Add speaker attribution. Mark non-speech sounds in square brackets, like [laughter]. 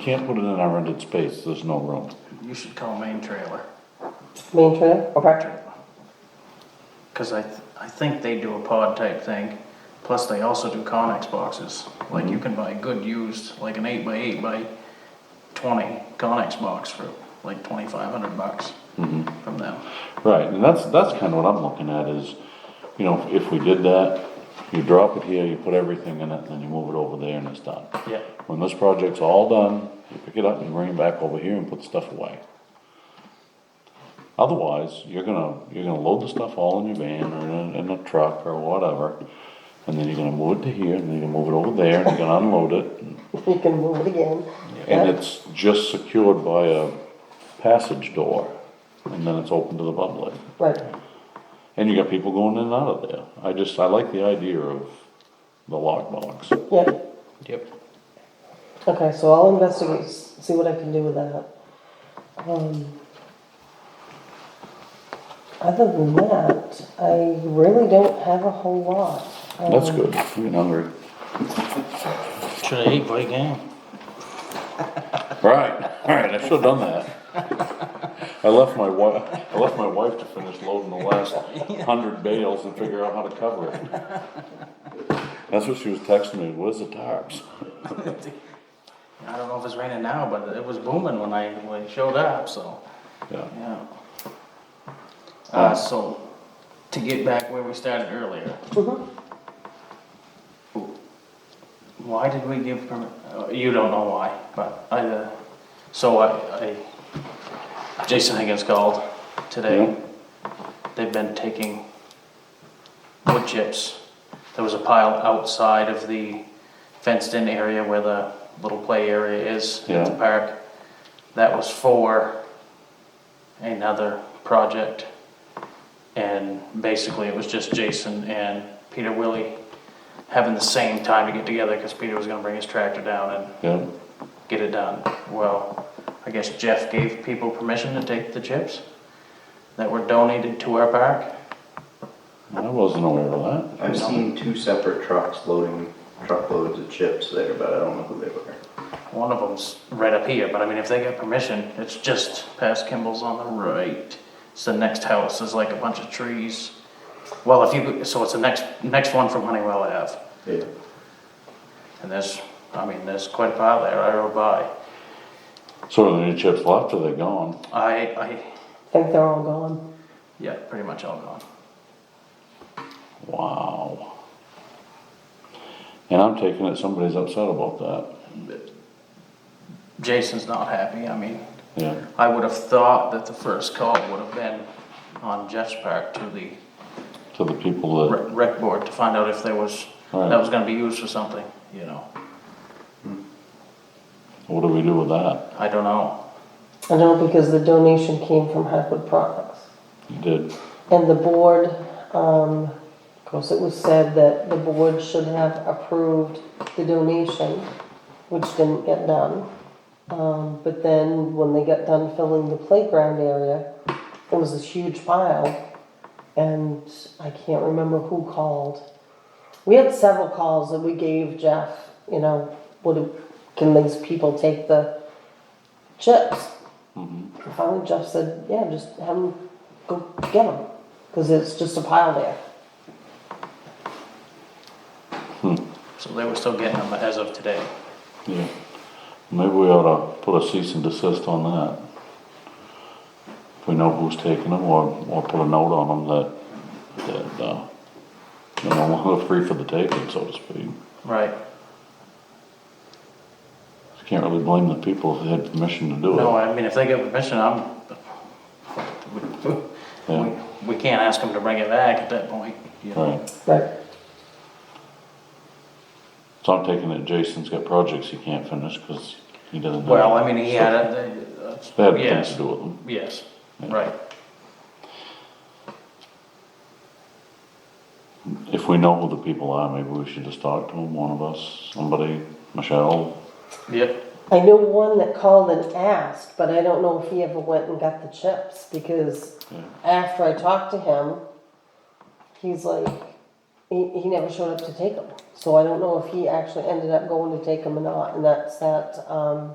Speaker 1: Can't put it in our rented space, there's no room.
Speaker 2: You should call main trailer,
Speaker 3: Main trailer, okay. [laughs]
Speaker 2: because I, th- I think they do a pod type thing. Plus, they also do Conex boxes. Like, you can buy good used, like an eight by eight by twenty Conex box for like twenty-five hundred bucks from them.
Speaker 1: Right, and that's, that's kind of what I'm looking at is, you know, if we did that, you drop it here, you put everything in it, then you move it over there and it's done.
Speaker 2: Yeah.
Speaker 1: When this project's all done, you pick it up and you bring it back over here and put the stuff away. Otherwise, you're gonna, you're gonna load the stuff all in your van or in, a- in a truck or whatever, and then you're gonna move it to here, and then you're gonna move it over there, and you're gonna unload it,
Speaker 3: You can move it again.
Speaker 1: And it's just secured by a passage door, and then it's open to the public.
Speaker 3: Right,
Speaker 1: And you got people going in and out of there. I just, I like the idea of the lockbox.
Speaker 3: yeah.
Speaker 2: Yep.
Speaker 3: Okay, so I'll investigate, s- see what I can do with that. Um, Other than that, I really don't have a whole lot.
Speaker 1: That's
Speaker 3: Um,
Speaker 1: good, I'm getting hungry.
Speaker 2: Should I eat by game?
Speaker 1: Right, alright, I should've done that. I left my wife, I left my wife to finish loading the last hundred bales and figure out how to cover it. That's what she was texting me, where's the tarps?
Speaker 2: I don't know if it's raining now, but it was booming when I, when I showed up, so.
Speaker 1: Yeah.
Speaker 2: Yeah. Uh, so, to get back where we started earlier.
Speaker 3: mm-hmm.
Speaker 2: Why did we give permit, uh, you don't know why, but I, uh, so I, I, Jason Higgins called today. They've been taking wood chips. There was a pile outside of the fenced-in area where the little play area is at the
Speaker 1: Yeah.
Speaker 2: park. That was for another project. And basically, it was just Jason and Peter Willie having the same time to get together because Peter was gonna bring his tractor down and
Speaker 1: Yeah,
Speaker 2: get it done. Well, I guess Jeff gave people permission to take the chips that were donated to our park.
Speaker 1: I wasn't aware of that.
Speaker 4: I've seen two separate trucks loading truckloads of chips there, but I don't know who they were.
Speaker 2: One of them's right up here, but I mean, if they got permission, it's just past Kimball's on the right. It's the next house, there's like a bunch of trees. Well, if you, so it's the next, next one from Honeywell Ave.
Speaker 4: Yeah.
Speaker 2: And there's, I mean, there's quite a pile there, I rode by.
Speaker 1: So are there any chips left, are they gone?
Speaker 2: I, I,
Speaker 3: Think they're all gone.
Speaker 2: yeah, pretty much all gone.
Speaker 1: Wow. And I'm taking it somebody's upset about that.
Speaker 2: Jason's not happy, I mean,
Speaker 1: Yeah,
Speaker 2: I would have thought that the first call would have been on Jeff's part to the
Speaker 1: to the people that,
Speaker 2: rec- rec board to find out if there was,
Speaker 1: Right.
Speaker 2: that was gonna be used for something, you know,
Speaker 1: what do we do with that?
Speaker 2: I don't know.
Speaker 3: I know because the donation came from Hackwood Products.
Speaker 1: You did,
Speaker 3: And the board, um, of course, it was said that the board should have approved the donation, which didn't get done. Um, but then when they got done filling the playground area, there was this huge pile. And I can't remember who called. We had several calls that we gave Jeff, you know, what, do- can these people take the chips? Finally, Jeff said, yeah, just have them go get them, because it's just a pile there.
Speaker 2: So they were still getting them as of today.
Speaker 1: yeah. Maybe we ought to put a cease and desist on that. If we know who's taking them, or, or put a note on them that, that, uh, they're no [laughs] longer free for the taking, so to speak.
Speaker 2: Right.
Speaker 1: I Can't really blame the people if they had permission to do
Speaker 2: No,
Speaker 1: it.
Speaker 2: I mean, if they get permission, I'm,
Speaker 1: Yeah.
Speaker 2: we, we can't ask them to bring it back at that point, you know.
Speaker 1: Right,
Speaker 3: Right.
Speaker 1: so I'm taking it Jason's got projects he can't finish, cause he doesn't. have-
Speaker 2: Well, I mean, he had a,
Speaker 1: They had
Speaker 2: uh,
Speaker 1: things to
Speaker 2: yes,
Speaker 1: do with them.
Speaker 2: yes,
Speaker 1: Yeah.
Speaker 2: right.
Speaker 1: If we know who the people are, maybe we should just talk to them, one of us, somebody, Michelle.
Speaker 2: Yep,
Speaker 3: I know one that called and asked, but I don't know if he ever went and got the chips, because
Speaker 1: Yeah.
Speaker 3: after I talked to him, he's like, he, he never showed up to take them. So I don't know if he actually ended up going to take them or not, and that's that, um,